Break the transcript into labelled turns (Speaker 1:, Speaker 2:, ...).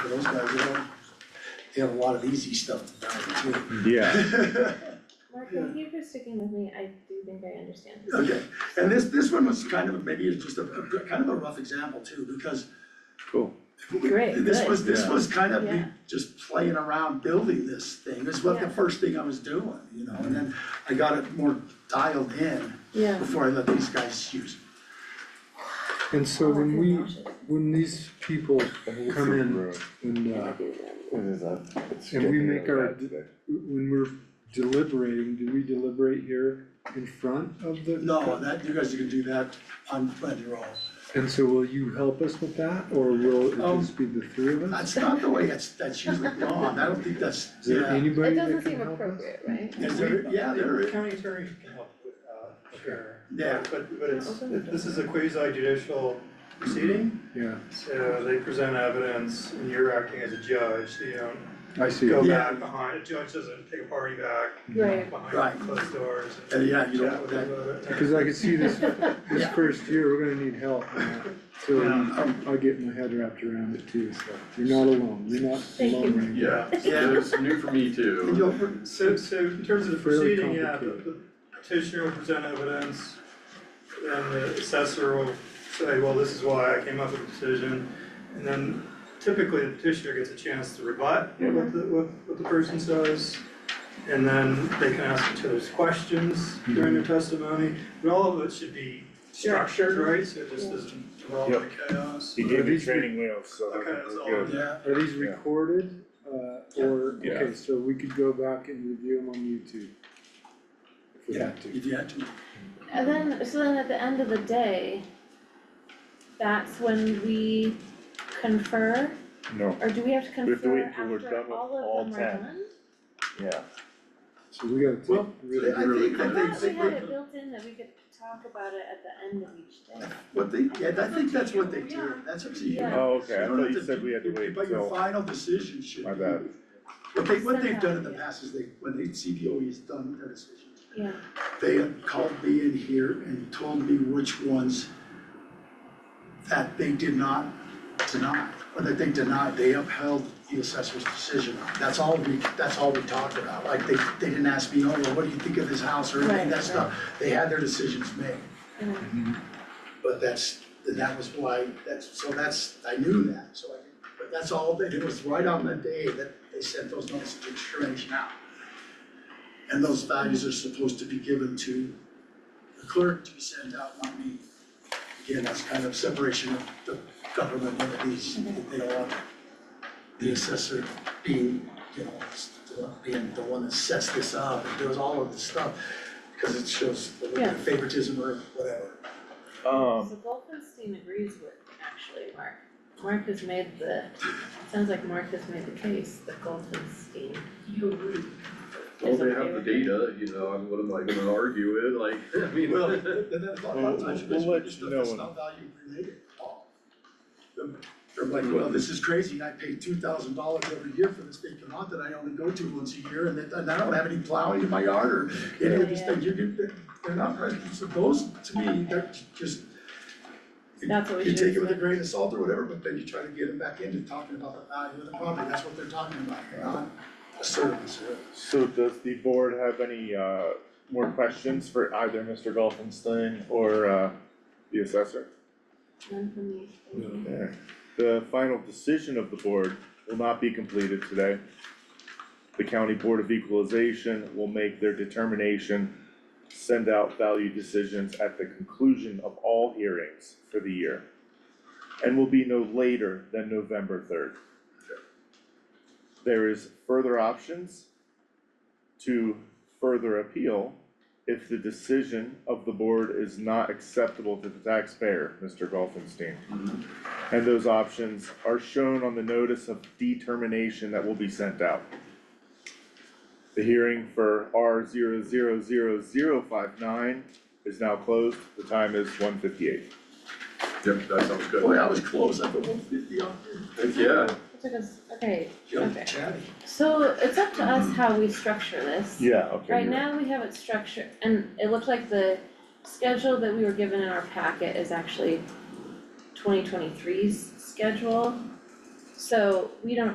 Speaker 1: those guys, they don't, they have a lot of easy stuff to balance too.
Speaker 2: Yeah,
Speaker 3: Mark, thank you for sticking with me, I do think I understand.
Speaker 1: Okay, and this, this one was kind of, maybe it's just a, a- kind of a rough example too, because
Speaker 2: cool.
Speaker 1: we-
Speaker 3: Great,
Speaker 1: this
Speaker 3: good.
Speaker 1: was, this
Speaker 2: Yeah.
Speaker 1: was kind of me
Speaker 3: Yeah.
Speaker 1: just playing around building this thing, this was the
Speaker 3: Yeah.
Speaker 1: first thing I was doing, you know, and then I got it more dialed in
Speaker 3: Yeah.
Speaker 1: before I let these guys use. it.
Speaker 4: And so
Speaker 3: Oh, I
Speaker 4: when
Speaker 3: feel
Speaker 4: we,
Speaker 3: nauseous.
Speaker 4: when these people come in and, uh, And we make our, when we're deliberating, do we deliberate here in front of the?
Speaker 1: No, that, you guys can do that on, on your own.
Speaker 4: And so will you help us with that, or will it just be the three of us?
Speaker 1: That's not the way that's, that's usually gone, I don't think that's,
Speaker 4: Is there
Speaker 1: yeah.
Speaker 3: It
Speaker 4: anybody that
Speaker 3: doesn't
Speaker 4: can
Speaker 3: seem
Speaker 4: help us?
Speaker 3: appropriate, right?
Speaker 1: Is there, yeah, there is,
Speaker 5: County attorney can help with, uh, sure.
Speaker 1: yeah,
Speaker 5: But, but it's,
Speaker 3: Okay.
Speaker 5: this is a quasi judicial proceeding,
Speaker 4: Yeah,
Speaker 5: so they present evidence and you're acting as a judge, so you don't
Speaker 4: I see.
Speaker 5: go
Speaker 1: Yeah.
Speaker 5: back behind, a judge doesn't take a party back
Speaker 1: Right.
Speaker 3: Right.
Speaker 5: behind closed doors
Speaker 1: Uh,
Speaker 5: and
Speaker 1: yeah, you don't-
Speaker 5: chat with them about it.
Speaker 4: Cause I could see this, this
Speaker 1: Yeah.
Speaker 4: first year, we're gonna need help on that. So
Speaker 1: um,
Speaker 4: I'll get my head wrapped around it too, so you're not alone, you're not
Speaker 3: Thank you.
Speaker 4: alone right now.
Speaker 6: Yeah,
Speaker 1: Yeah.
Speaker 6: so it's new for me
Speaker 1: and
Speaker 6: too.
Speaker 1: you'll-
Speaker 5: So, so in terms of the
Speaker 4: Fairly
Speaker 5: proceeding, yeah, the
Speaker 4: complicated.
Speaker 5: the petitioner will present evidence, and the assessor will say, well, this is why I came up with a decision. And then typically the petitioner gets a chance to rebut what the, what, what the person says. And then they can ask each other's questions during
Speaker 4: Mm-hmm.
Speaker 5: their testimony, and all of it should be structured, right? So it just doesn't involve like chaos.
Speaker 7: He
Speaker 4: Are
Speaker 7: gave me
Speaker 4: these
Speaker 7: training wheels, so
Speaker 5: Okay, that's all.
Speaker 7: we're good.
Speaker 1: yeah,
Speaker 4: Are these recorded, uh, or,
Speaker 7: Yeah.
Speaker 4: okay, so we could go back and review them on YouTube? If we
Speaker 1: yeah,
Speaker 4: had to.
Speaker 1: if you had to.
Speaker 3: And then, so then at the end of the day, that's when we confer,
Speaker 7: No,
Speaker 3: or do we have to
Speaker 7: have to
Speaker 3: confer
Speaker 7: wait till we're done
Speaker 3: after
Speaker 7: with
Speaker 3: all
Speaker 7: all
Speaker 3: of them are
Speaker 7: ten.
Speaker 3: done?
Speaker 7: yeah,
Speaker 4: So we gotta take
Speaker 1: Well,
Speaker 4: really.
Speaker 1: I think, I
Speaker 3: I
Speaker 1: think,
Speaker 3: thought we had it built in that we could talk about it at the end of each day.
Speaker 1: what they, yeah, I think that's what they do, that's up to you.
Speaker 3: Yeah.
Speaker 7: oh, okay, I
Speaker 1: You don't
Speaker 7: thought
Speaker 1: have
Speaker 7: you
Speaker 1: to
Speaker 7: said
Speaker 1: do-
Speaker 7: we had to
Speaker 1: you-
Speaker 7: wait
Speaker 1: But your
Speaker 7: till,
Speaker 1: final decision should.
Speaker 7: my
Speaker 1: be-
Speaker 7: bad.
Speaker 1: What they, what they've done in the
Speaker 3: Somehow, yeah.
Speaker 1: past is they, when the CPOE has done their decisions,
Speaker 3: Yeah,
Speaker 1: they have called me in here and told me which ones that they did not deny, or that they denied, they upheld the assessor's decision. That's all we, that's all we talked about, like, they, they didn't ask me, oh, well, what do you think of this house, or anything,
Speaker 3: Right, Mm-hmm.
Speaker 1: that stuff, they had their decisions made.
Speaker 3: yeah.
Speaker 1: But that's, and that was why, that's, so that's, I knew that, so I, but that's all, they it was right on the day that they sent those notes to consideration out. And those values are supposed to be given to the clerk to be sent out, not me. Again, that's kind of separation of the government, one of these, they don't want the assessor being, you know, being the one that sets this up, and does all of this stuff, because it shows a little bit of favoritism or whatever.
Speaker 7: um,
Speaker 3: So Goldenstein agrees with, actually, Mark. Mark has made the, sounds like Mark has made the case that Goldenstein
Speaker 6: Well,
Speaker 3: is
Speaker 6: they
Speaker 3: okay
Speaker 6: have the
Speaker 3: with it.
Speaker 6: data, you know, and what am I gonna argue with, like, I mean.
Speaker 1: Well, and that's a lot of times,
Speaker 7: We'll-
Speaker 1: it's
Speaker 7: we'll let
Speaker 1: just
Speaker 7: you
Speaker 1: stuff that's
Speaker 7: know.
Speaker 1: not value related at all. They're like, well, this is crazy, I pay two thousand dollars every year for this big lot that I only go to once a year, and it- and I don't have any plowing in my yard or any of these
Speaker 3: Yeah.
Speaker 1: things, you can, they're- they're not, present. so those, to me, they're just.
Speaker 3: That's what we
Speaker 1: You
Speaker 3: should
Speaker 1: take it with a
Speaker 3: expect.
Speaker 1: grain of salt or whatever, but then you try to get them back into talking about the value of the property, that's what they're talking about, here, not a service or.
Speaker 7: so does the board have any, uh, more questions for either Mr. Golfenstein or, uh, the assessor?
Speaker 3: None from me.
Speaker 7: Okay. The final decision of the board will not be completed today. The County Board of Equalization will make their determination, send out value decisions at the conclusion of all hearings for the year. And will be no later than November third. There is further options to further appeal if the decision of the board is not acceptable to the taxpayer, Mr. Golfenstein. And those options are shown on the notice of determination that will be sent out. The hearing for R 59 is now closed, the time is one fifty-eight.
Speaker 6: Yep, that sounds
Speaker 1: Boy,
Speaker 6: good.
Speaker 1: I was close, I put one fifty on,
Speaker 6: Heck, yeah,
Speaker 3: It took us, okay,
Speaker 1: jump
Speaker 3: Okay.
Speaker 1: chatty.
Speaker 3: so it's up to us how we structure this.
Speaker 7: Yeah, okay.
Speaker 3: Right
Speaker 7: you're-
Speaker 3: now, we have it structured, and it looked like the schedule that we were given in our packet is actually 2023's schedule. So we don't